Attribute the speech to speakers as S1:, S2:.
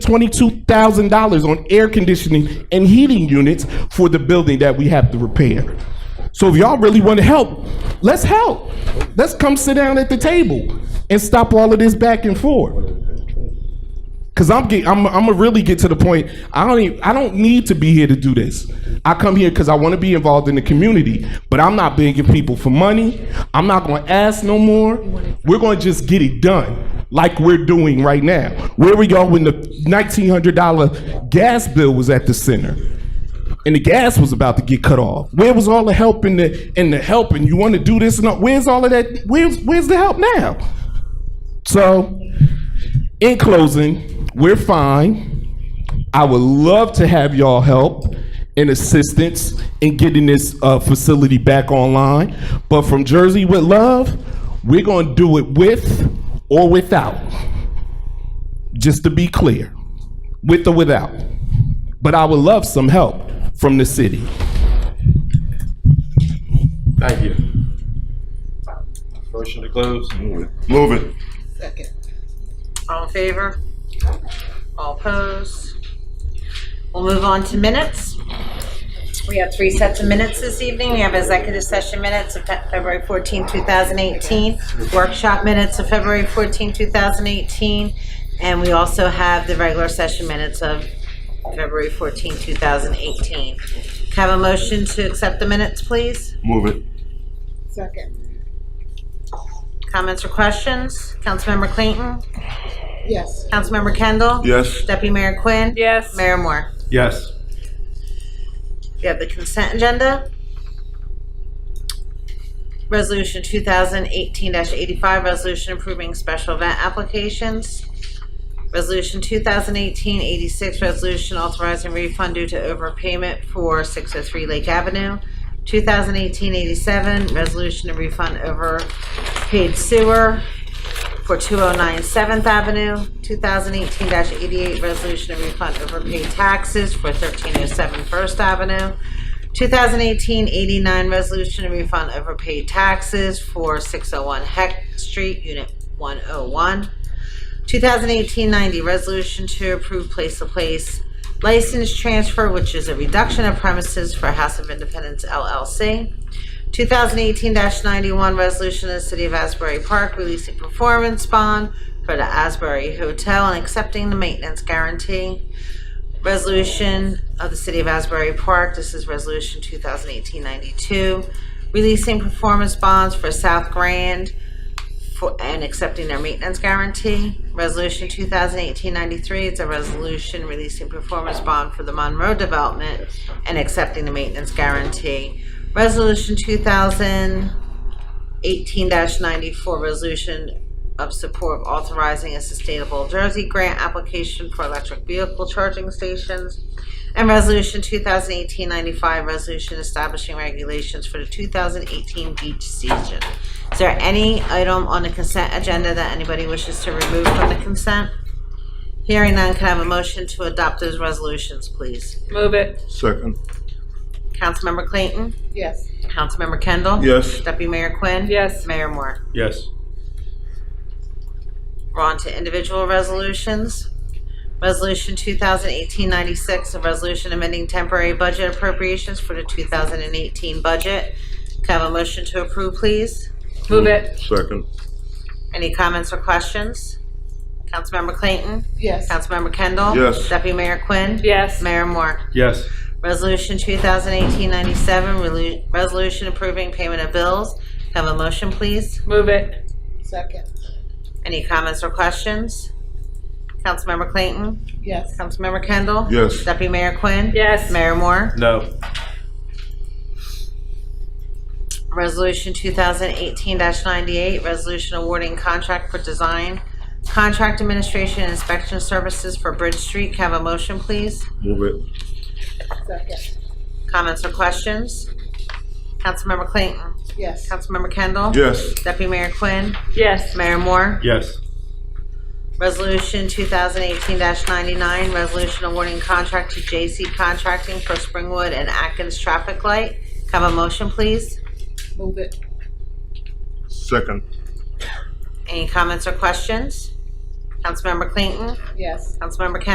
S1: $22,000 on air conditioning and heating units for the building that we have to repair. So if y'all really want to help, let's help. Let's come sit down at the table and stop all of this back and forth. Cause I'm get, I'm I'm gonna really get to the point. I don't even, I don't need to be here to do this. I come here because I want to be involved in the community. But I'm not begging people for money. I'm not gonna ask no more. We're gonna just get it done like we're doing right now. Where were y'all when the nineteen hundred dollar gas bill was at the center? And the gas was about to get cut off. Where was all the help and the and the help and you want to do this and all, where's all of that? Where's where's the help now? So in closing, we're fine. I would love to have y'all help and assistance in getting this uh, facility back online. But from Jersey with Love, we're going to do it with or without. Just to be clear, with or without. But I would love some help from the city.
S2: Thank you. Motion to close.
S3: Move it.
S4: Second. All in favor? All opposed? We'll move on to minutes. We have three sets of minutes this evening. We have executive session minutes of Fe- February 14, 2018, workshop minutes of February 14, 2018, and we also have the regular session minutes of February 14, 2018. Can I have a motion to accept the minutes, please?
S3: Move it.
S5: Second,
S4: Comments or questions? Councilmember Clayton?
S5: yes.
S4: Councilmember Kendall?
S3: Yes.
S4: Deputy Mayor Quinn?
S6: Yes.
S4: Mayor Moore?
S2: Yes.
S4: We have the consent agenda. Resolution 2018-85, resolution approving special event applications. Resolution 2018-86, resolution authorizing refund due to overpayment for 603 Lake Avenue. 2018-87, resolution to refund overpaid sewer for 209 Seventh Avenue, 2018-88, resolution to refund overpaid taxes for 1307 First Avenue, 2018-89, resolution to refund overpaid taxes for 601 Heck Street, Unit 101, 2018-90, resolution to approve place-to-place license transfer, which is a reduction of premises for House of Independence LLC, 2018-91 resolution of the City of Asbury Park releasing performance bond for the Asbury Hotel and accepting the maintenance guarantee. Resolution of the City of Asbury Park, this is Resolution 2018-92, releasing performance bonds for South Grand for- and accepting their maintenance guarantee. Resolution 2018-93, it's a resolution releasing performance bond for the Monroe Development and accepting the maintenance guarantee. Resolution 2018-94, resolution of support of authorizing a sustainable Jersey grant application for electric vehicle charging stations. And Resolution 2018-95, resolution establishing regulations for the 2018 beach season. Is there any item on the consent agenda that anybody wishes to remove from the consent? Hearing none, can I have a motion to adopt those resolutions, please?
S6: Move it.
S3: Second.
S4: Councilmember Clayton?
S5: Yes.
S4: Councilmember Kendall?
S3: Yes.
S4: Deputy Mayor Quinn?
S6: Yes.
S4: Mayor Moore?
S2: Yes.
S4: We're on to individual resolutions. Resolution 2018-96, a resolution amending temporary budget appropriations for the 2018 budget. Can I have a motion to approve, please?
S6: Move it.
S3: Second.
S4: Any comments or questions? Councilmember Clayton?
S5: Yes.
S4: Councilmember Kendall?
S3: Yes.
S4: Deputy Mayor Quinn?
S6: Yes.
S4: Mayor Moore?
S2: Yes.
S4: Resolution 2018-97, relu- resolution approving payment of bills. Can I have a motion, please?
S6: Move it.
S5: Second,
S4: Any comments or questions? Councilmember Clayton?
S5: yes.
S4: Councilmember Kendall?
S3: Yes.
S4: Deputy Mayor Quinn?
S6: Yes.
S4: Mayor Moore?
S2: No.
S4: Resolution 2018-98, resolution awarding contract for design, contract administration and inspection services for Bridge Street. Can I have a motion, please?
S3: Move it.
S5: Second,
S4: Comments or questions? Councilmember Clayton?
S5: yes.
S4: Councilmember Kendall?
S3: Yes.
S4: Deputy Mayor Quinn?
S6: Yes.
S4: Mayor Moore?
S2: Yes.
S4: Resolution 2018-99, resolution awarding contract to J.C. Contracting for Springwood and Atkins Traffic Light. Can I Have a motion, please.
S5: Move it,
S3: Second.
S4: Any comments or questions? Councilmember Clayton?
S5: yes.
S4: Councilmember Kendall?